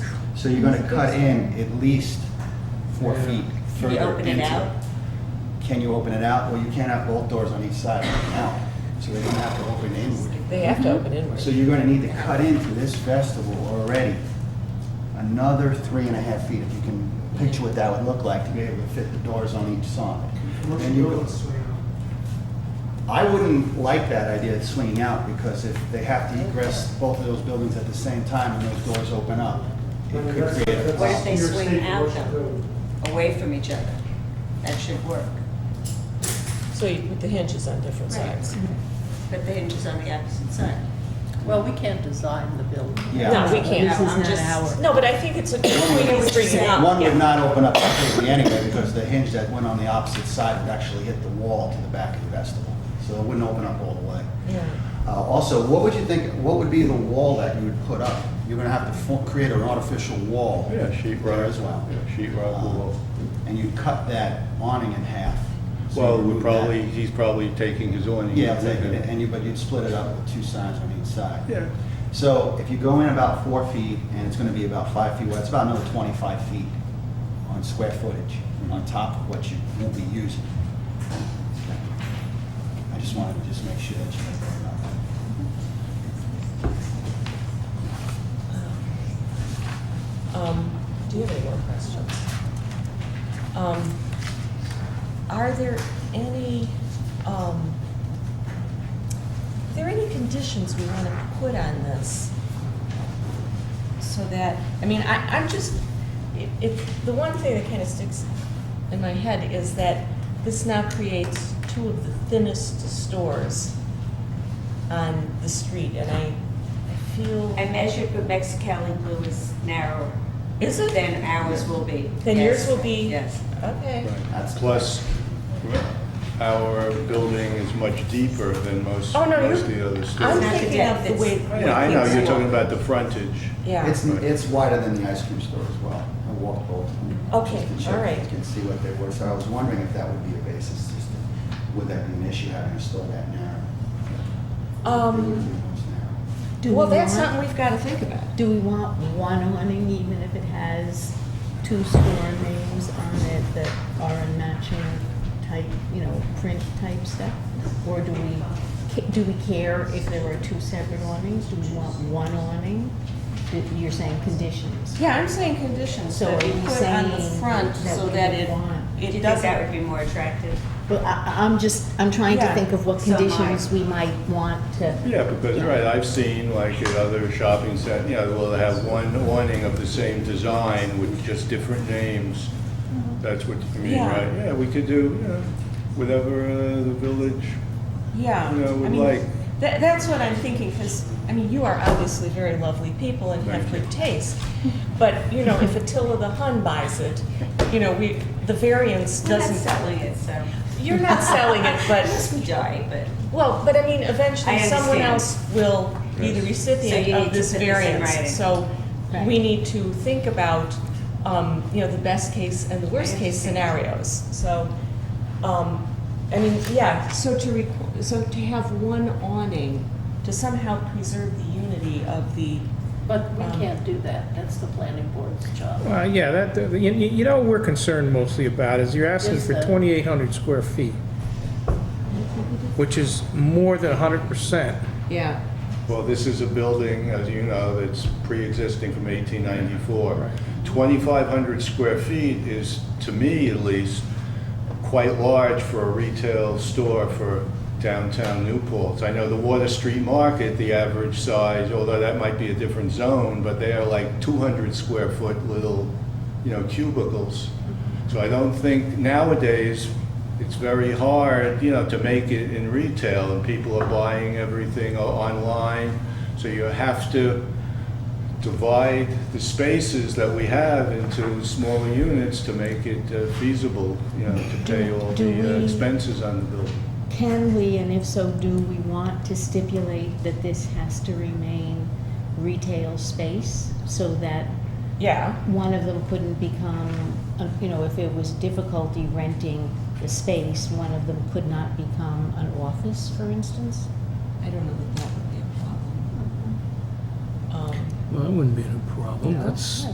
So you're gonna cut in at least four Yeah. feet Can you further open it into out? Can you open it out? Well, you can't have both doors on each side right now, so they're gonna have to open inward. They have to open inward. Mm-hmm. So you're gonna need to cut into this festival already another three and a half feet, if you can picture what that would look like, to be able to fit the doors on each side. Then you go- I wouldn't like that idea of swinging out, because if they have to egress both of those buildings at the same time and those doors open up, it could create a What if they problem. swing out though, away from each other? That should work. So you put the hinges on different Right. sides. But the hinge is on the opposite side. Well, we can't design the building. Yeah. No, we can't. This I'm is just- not our. No, but I think it's a good Yeah, point what he's bringing you're up. One would yeah. not open up completely anyway, because the hinge that went on the opposite side would actually hit the wall to the back of the vestibule, so it wouldn't open up all the way. Yeah. Uh, Also, what would you think, what would be the wall that you would put up? You're gonna have to fo- create an artificial wall. Oh, Yeah, sheet rock. There as well. Uh, Yeah, sheet rock wall. And you'd cut that awning in half. So Well, you we remove probably, that. he's probably taking his awning. Yeah, take it, and you, but you'd split it up with two sides on each side. Yeah. So if you go in about four feet, and it's gonna be about five feet wide, it's about another twenty-five feet on square footage, on top of what you will be using. I just wanted to just make sure that you had that about that. Um, Do you have any more questions? Um, Are there any, um, are there any conditions we want to put on this? So that, I mean, I, I'm just, it, it- the one thing that kind of sticks in my head is that this now creates two of the thinnest stores on the street, and I, I feel. I measured what Mexicali Blue is narrower Is it? than ours will be. Then yours Yes. will be. Yes. Okay. That's- Plus, our building is much deeper than most, Oh, no, you're- most of the other I'm It's stores. not the thinking of the depth, way. it's- Yeah, I know, things you're are. talking about the frontage. Yeah. It's, it's wider than the ice cream store as well. I walked both. of them, Okay, just to check all right. if you Can see what they were, so I was wondering if that would be a basis, just to- would that be an issue having a store that narrow? It would Um, be most narrow. Do well, we that's want- something we've got to think about. Do we want one awning, even if it has two store names on it that are in matching type, you know, print type stuff? Or do we, ca- do we care if there are two separate awnings? Do we want one awning? That You're saying conditions. Yeah, I'm saying conditions So that are we you put on the saying front that so we that it, want- Do you it think doesn't. that would be more attractive? Well, I, I'm just, I'm trying to Yeah. think of what So am I. conditions we might want to. Yeah, because, Yeah. right, I've seen like at other shopping centers, you know, well, they have one awning of the same design with just different names. That's what you mean, Mm-hmm. Yeah. right? Yeah, we could do, you know, whatever uh, the village, Yeah. you know, I would mean, like. That, that's what I'm thinking, because, I mean, you are obviously very lovely people and have Thank you. good taste. But, you know, if Attila the Hun buys it, you know, we, the variance We're not doesn't. selling it, so. You're not selling it, but. Yes, we die, but. Well, but I mean, eventually I understand. someone else will be the Yes. So you recipient need of to this put this in writing. variance. So Right. we need to think about, um, you know, the best case and the worst case scenarios. So, um, I mean, yeah, so to requ- so to have one awning to somehow preserve the unity of the, But we Um, can't do that, that's the planning board's job. Uh, Yeah, that, that- you you- you know what we're concerned mostly about is you're asking Is for the- 2,800 square feet, which is more than 100%. Yeah. Well, this is a building, as you know, that's pre-existing from 1894. 2,500 square feet is, to me at least, quite large for a retail store for downtown Newport. I know the Water Street Market, the average size, although that might be a different zone, but they are like 200 square foot little, you know, cubicles. So I don't think nowadays, it's very hard, you know, to make it in retail, and people are buying everything o- online. So you have to divide the spaces that we have into smaller units to make it uh, feasible, you know, to pay all Do- do the uh, we- expenses on the building. Can we, and if so, do we want to stipulate that this has to remain retail space so that yeah, one of them couldn't become, uh, you know, if it was difficulty renting the space, one of them could not become an office, for instance? I don't know that that would be a problem. Um, Well, that wouldn't be a problem. No. That's,